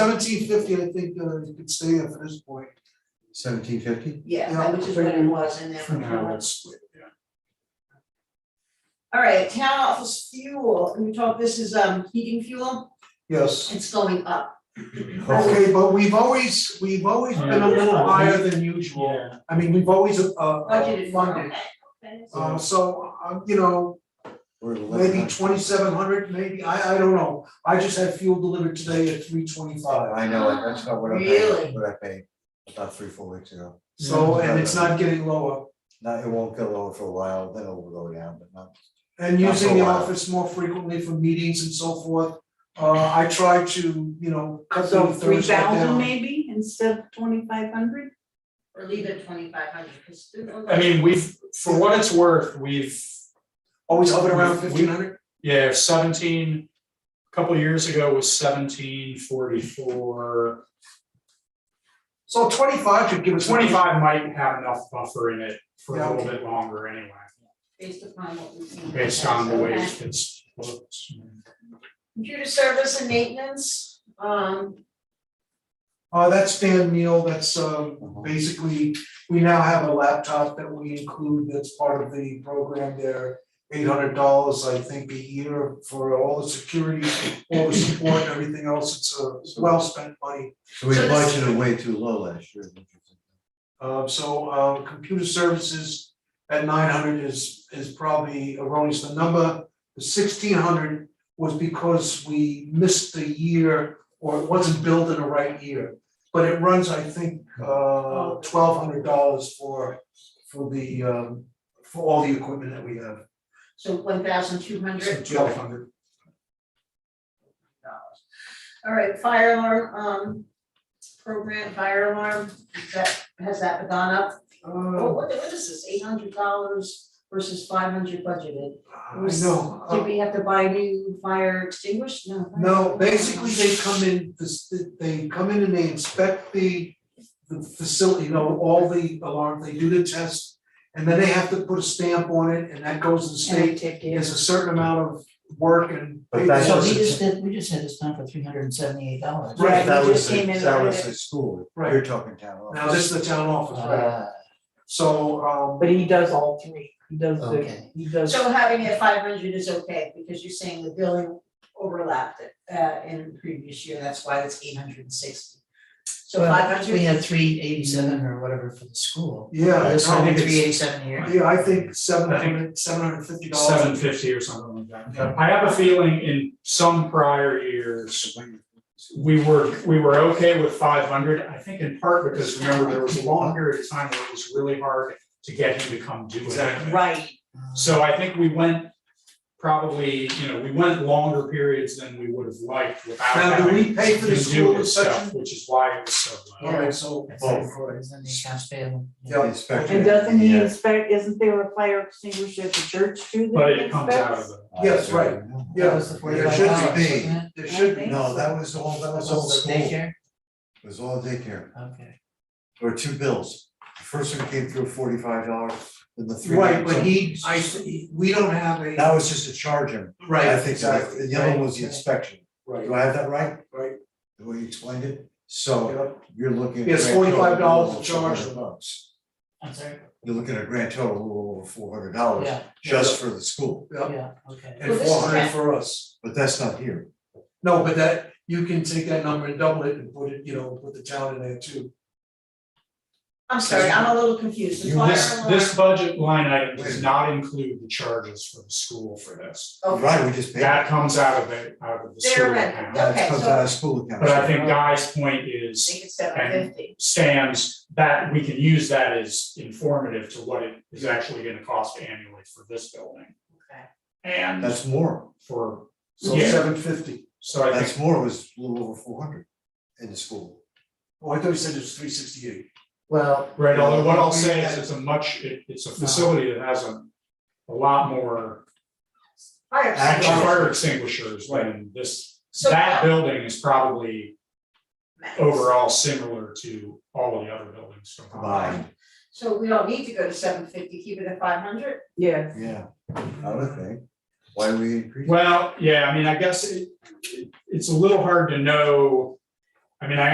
Seventeen fifty, I think, uh, you could stay at for this point. Seventeen fifty? Yeah. Yeah, which is what it was in there. For now, that's, All right, town office fuel, and we talk, this is um heating fuel, yes. it's going up. Okay, but we've always, we've always been a little higher than usual. I mean, we've always, uh, uh, Budgeted for, funded. okay, okay. Um, Uh, so, uh, you know, maybe twenty-seven hundred, maybe, I, I don't know. I just had fuel delivered today at three twenty-five. I know, it. that's not what I Really? paid, what I paid about three, four weeks ago. So, and it's not getting lower. Now, it won't go lower for a while, then it will go down, but not. And Not for a using the while. office more frequently for meetings and so forth. Uh, I try to, you know, cut the So Thursday down. three thousand maybe instead of twenty-five hundred? Or leave it twenty-five hundred, because. I mean, we've, for what it's worth, we've, Always hovered around We- we- fifteen hundred? yeah, seventeen. a Couple years ago was seventeen forty-four. So twenty-five should give us. Twenty-five might have enough buffer in it for Yeah, a little okay. bit longer anyway, Based upon what we've seen. based on the way Okay. it's looked. Computer service and maintenance, um, Uh, that's Dan Neal, that's, um, basically, we now have a laptop that we include that's part of the program there. Eight hundred dollars, I think, a year for all the security, all the support, and everything else, it's a well-spent money. So we So this- budgeted way too low last year. which is- Uh, so, uh, computer services at nine hundred is, is probably erroneous, the number, the sixteen hundred was because we missed the year, or it wasn't billed in the right year. But it runs, I think, uh, twelve hundred dollars for, for the, um, for all the equipment that we have, so one thousand two hundred twelve hundred. dollars. All right, fire alarm, um, program, fire alarm, is that, has that gone up? Oh, Uh, what, what is this, eight hundred dollars versus five hundred budgeted? I know, uh, Did we have to buy new fire extinguishers? No. right? No, basically, they come in, this- they come in and they inspect the, the facility, you know, all the alarm, they do the test. And then they have to put a stamp on it, and that goes to the And state, we take care of there's a it. certain amount of work and. But that's So we just- just did, we just had this done for three hundred and seventy-eight dollars. Right, Right, we That was, just came the- in that with was it. the school, Right. you're talking town office. Now, this is the town office, right? Ah. So, um. But he does all three, he does the, Okay. he does, So having it five hundred is okay, because you're saying the billing overlapped it, uh, in the previous year, that's why it's eight hundred and sixty. So five well, hundred. we had three eighty-seven or whatever for the school. Yeah, This no, one, I think three it's- eighty-seven here. Yeah, I think seven hundred, seven hundred fifty dollars. Seven fifty or something like that. I have a feeling in some prior years, we were, we were okay with five hundred. I think in part because remember, there was a long period of time where it was really hard to get him to come do it. Exactly. Right, So I think we went probably, you know, we went longer periods than we would have liked without Now, do having we pay for the to do school this stuff, section? which is why it was so low. Alright, so, That's Oh. like four, isn't it, accounts payable? yeah. Inspector. and doesn't he Yeah. inspect, isn't there a fire extinguisher at the church too that But he it comes out of inspects? the, Yes, right. That Yeah, was the There forty-five should dollars, be, wasn't it? there should be, no, that was all, that was all Also school, it daycare, was all daycare, okay. there were two bills. The First one came through forty-five dollars, then the three. right, but he, I, we don't have a. That was just to charge him, Right, I think, that- the other one was the Right. inspection. Right, Do I have that right? Right. The way you explained it, so yeah. you're looking. at Yes, a grand total $45 of to charge. $400 bucks. I'm sorry, You're looking at a grand total of a little over four hundred dollars yeah, just for the school, yeah, okay. and Well, this is four hundred bad. for us. but that's not here. No, but that, you can take that number and double it and put it, you know, put the town in there too. I'm sorry, I'm a little confused, the You- fire this, alarm. this budget line item does not include the charges for the school for this. Okay. Right, we just paid. That comes out of the, out of the They're school right. account. That Okay, comes so- out of school account. But I think Guy's point is, Make it seven fifty. stands, that we can use that as informative to what it is actually gonna cost annually for this building. Okay. And That's more, for, So Yeah. seven fifty. so I think, that's more was a little over four hundred in the school. Oh, I thought you said it was three sixty-eight. Well, right, although what I'll say is it's a much, it, it's a facility that has a, a lot more Fire actual extinguisher. fire extinguishers than this. So That how- building is probably Max. overall similar to all of the other buildings combined. Combined, So we don't need to go to seven fifty, keep it at five hundred? Yes, yeah, I would think. Why we increase? Well, yeah, I mean, I guess it, it- it's a little hard to know mean, I